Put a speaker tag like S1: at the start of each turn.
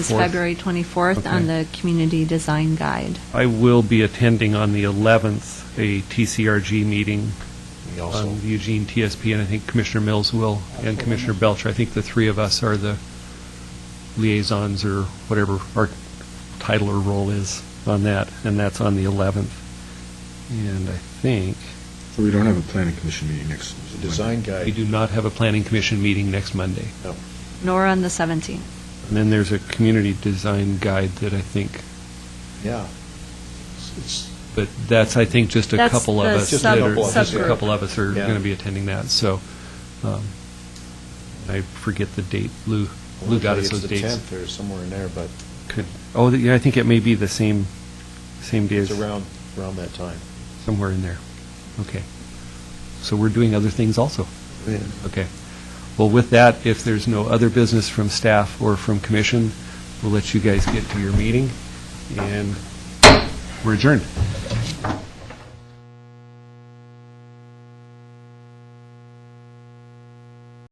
S1: It's
S2: Fourth.
S1: February 24th on the Community Design Guide.
S2: I will be attending on the 11th, a TCRG meeting
S3: We also,
S2: on the Eugene TSP, and I think Commissioner Mills will, and Commissioner Belcher. I think the three of us are the liaisons, or whatever our title or role is on that, and that's on the 11th. And I think,
S4: So we don't have a planning commission meeting next.
S3: the design guide.
S2: we do not have a planning commission meeting next Monday.
S3: No.
S1: Nor on the 17th.
S2: And then there's a community design guide that I think,
S3: Yeah. It's- it's-
S2: but that's, I think, just a
S1: That's
S2: couple of
S1: the
S2: us.
S3: Just a
S2: that are-
S3: couple of us,
S2: Just a
S3: yeah.
S2: couple of us are
S3: Yeah.
S2: going to be attending that, so um, I forget the date. Lou,
S3: I
S2: Lou
S3: wanna
S2: got
S3: say
S2: us those
S3: It's the
S2: dates.
S3: 10th or somewhere in there, but
S2: Could- Oh, th- yeah, I think it may be the same, same day
S3: it's
S2: as,
S3: around, around that time.
S2: somewhere in there. Okay. So we're doing other things also. Okay. Well, with that, if there's no other business from staff or from commission, we'll let you guys get to your meeting, and we're adjourned.